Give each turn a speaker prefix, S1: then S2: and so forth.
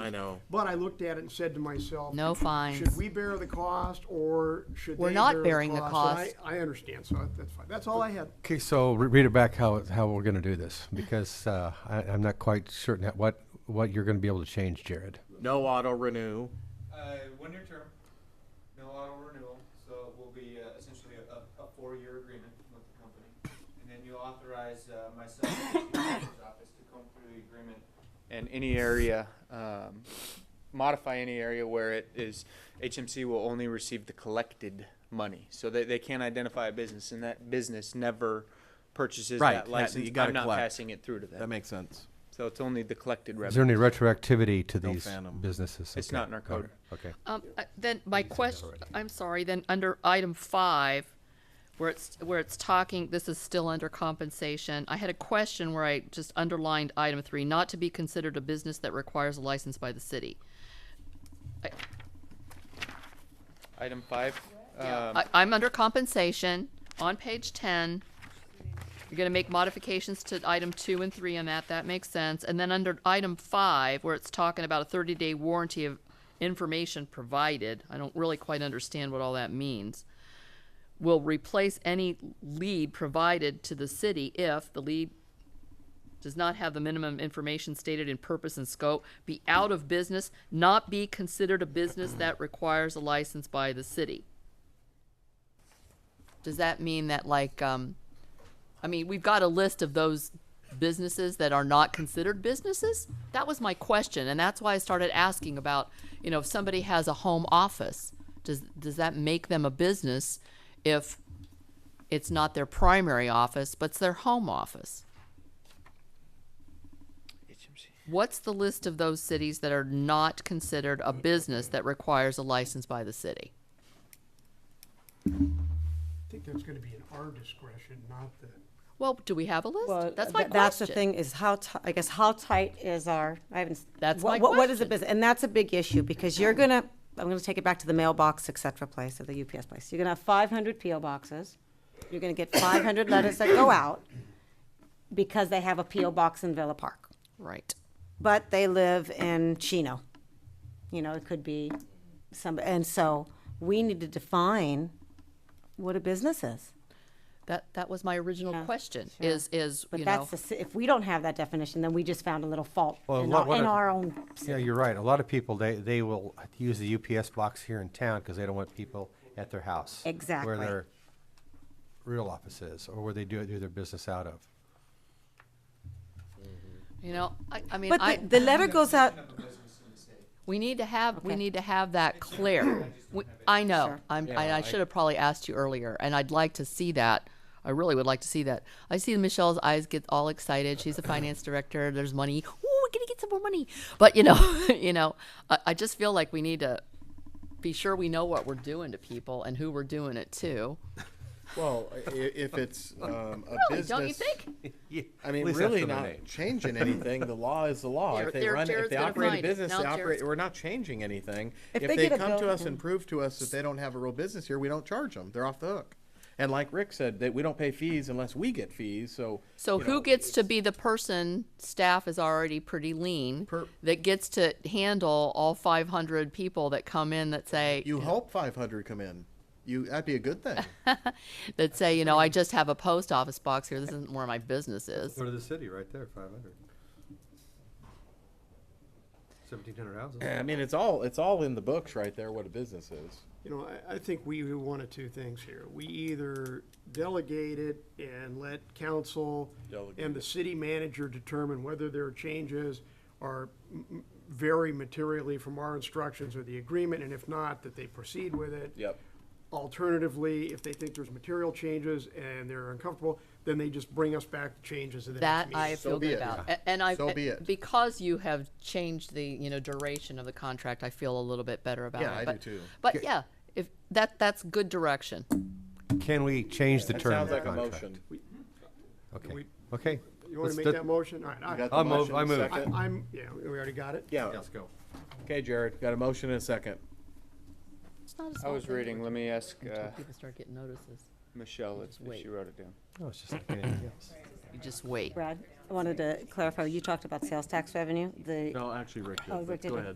S1: I know.
S2: But I looked at it and said to myself,
S3: No
S2: Should
S3: fines.
S2: we bear the cost or should
S3: We're
S2: they
S3: not
S2: bear
S3: bearing the
S2: And I, I understand, so that's fine. That's all I had.
S4: Okay, so re- read it back how, it- how we're gonna do this, because, uh, I, I'm not quite certain that what, what you're gonna be able to change, Jared.
S1: No auto renew.
S5: Uh, one year term, no auto renewal, so it will be uh, essentially a, a, a four-year agreement with the company. And then you authorize uh, myself and the manager's office to come through the agreement and any area, um, modify any area where it is, HMC will only receive the collected money. So they, they can't identify a business and that business never purchases
S1: Right,
S5: that
S1: that-
S5: license.
S1: you gotta
S5: I'm not
S1: collect.
S5: passing it through to
S1: That
S5: them.
S1: makes sense.
S5: So it's only the collected
S4: Is
S5: revenue.
S4: there any retroactivity to
S1: No
S4: these
S1: phantom.
S4: businesses?
S5: It's
S4: Okay,
S5: not in our
S4: got
S5: code.
S4: it. Okay.
S3: Um, uh, then my
S4: said that
S3: question,
S4: already.
S3: I'm sorry, then under item five, where it's, where it's talking, this is still under compensation. I had a question where I just underlined item three, not to be considered a business that requires a license by the city.
S5: Item five. um,
S3: I, I'm under compensation on page ten. You're gonna make modifications to item two and three on that, that makes sense. And then under item five, where it's talking about a thirty-day warranty of information provided, I don't really quite understand what all that means. Will replace any lead provided to the city if the lead does not have the minimum information stated in purpose and scope, be out of business, not be considered a business that requires a license by the city. Does that mean that like, um, I mean, we've got a list of those businesses that are not considered businesses? That was my question, and that's why I started asking about, you know, if somebody has a home office, does, does that make them a business if it's not their primary office, but it's their home office?
S5: HMC.
S3: What's the list of those cities that are not considered a business that requires a license by the city?
S2: I think that's gonna be in our discretion, not the,
S3: Well, do we have a
S6: Well,
S3: list? That's my
S6: th- That's the
S3: question.
S6: thing is how, ti- I guess, how tight is our, I haven't. s-
S3: That's
S6: what-
S3: my
S6: what- What is the
S3: question.
S6: business? And that's a big issue because you're gonna, I'm gonna take it back to the mailbox, et cetera place, or the UPS place. You're gonna have five hundred PO boxes. You're gonna get five hundred letters that go out because they have a PO box in Villa Park.
S3: Right.
S6: but they live in Chino. You know, it could be some, and so we need to define what a business is.
S3: That, that was my original
S6: Yeah,
S3: question,
S6: sure.
S3: is, is,
S6: But
S3: you know,
S6: that's the, ci- if we don't have that definition, then we just found a little fault
S4: Well,
S6: in,
S4: what-
S6: our,
S4: what
S6: in
S4: if-
S6: our own.
S4: Yeah, you're right. A lot of people, they, they will use the UPS box here in town because they don't want people at their house.
S6: Exactly.
S4: Where their real office is, or where they do, do their business out of.
S3: you know, I, I mean,
S6: But
S3: I,
S6: the, the letter goes out.
S5: Of a business in the state.
S3: we need to have, we
S6: Okay.
S3: need to have that clear. We- I know,
S6: Sure.
S3: I'm, and I should have probably asked you earlier, and I'd like to see that. I really would like to see that. I see Michelle's eyes get all excited. She's the finance director. There's money. Ooh, we're gonna get some more money. But you know, you know, I, I just feel like we need to be sure we know what we're doing to people and who we're doing it to.
S7: Well, i- if it's um, a
S3: Really,
S7: business,
S3: don't you think?
S7: I mean,
S4: At least
S7: really
S4: after their
S7: not
S4: name.
S7: changing anything. The law is the law.
S3: Here-
S7: if they
S3: there-
S7: run,
S3: Jared's
S7: if they
S3: gonna
S7: operate
S3: find
S7: a
S3: it.
S7: business,
S3: Now
S7: they operate.
S3: Jared's-
S7: We're not changing anything.
S6: If
S7: If,
S6: they
S7: they,
S6: get a
S7: come to
S6: bill-
S7: us and prove to us that they don't have a real business here, we don't charge them. They're off the hook. And like Rick said, that we don't pay fees unless we get fees. So
S3: So
S7: you
S3: who
S7: know,
S3: gets to be the person? Staff is already pretty lean.
S7: Per-
S3: that gets to handle all 500 people that come in that say
S7: You hope 500 come in. You that'd be a good thing.
S3: that say, you know, I just have a post office box here. This isn't where my business is.
S4: Go to the city right there, five hundred. Seventeen hundred houses.
S7: I mean, it's all it's all in the books right there what a business is.
S2: you know, I, I think we do one of two things here. We either delegate it and let council and the city manager determine whether there are changes or vary materially from our instructions or the agreement, and if not, that they proceed with it.
S7: Yep.
S2: Alternatively, if they think there's material changes and they're uncomfortable, then they just bring us back the changes in the next
S3: That
S2: meeting.
S3: I
S7: So
S3: feel
S7: be
S3: good
S7: it.
S3: about. A- And I,
S7: So be it.
S3: because you have changed the, you know, duration of the contract, I feel a little bit better about
S7: Yeah,
S3: it.
S7: I do
S3: But-
S7: too.
S3: But yeah, if that, that's good direction.
S4: Can we change the
S7: That
S4: term of
S7: sounds
S4: the
S7: like a
S4: contract?
S7: motion.
S4: Okay,
S2: We-
S4: okay.
S2: You want
S4: Let's
S2: to make
S4: do-
S2: that motion? All right, I-
S7: You got the
S4: I'll move-
S7: motion,
S4: I move.
S7: second?
S2: I- I'm, yeah, we already got it?
S7: yeah.
S4: Let's go.
S7: Okay, Jared, got a motion and a second.
S3: It's not a
S5: I
S3: small
S5: was
S3: thing
S5: reading, let me ask
S3: until
S5: uh,
S3: people start getting notices.
S5: Michelle if
S3: Just
S5: if
S3: wait.
S5: she wrote it down.
S4: No, Oh, it's just like anything else.
S3: You just wait.
S6: Brad, I wanted to clarify. You talked about sales tax revenue. The
S7: No, actually, Rick. did,
S6: Oh,
S7: but
S6: Rick did
S7: go
S6: it.
S7: ahead.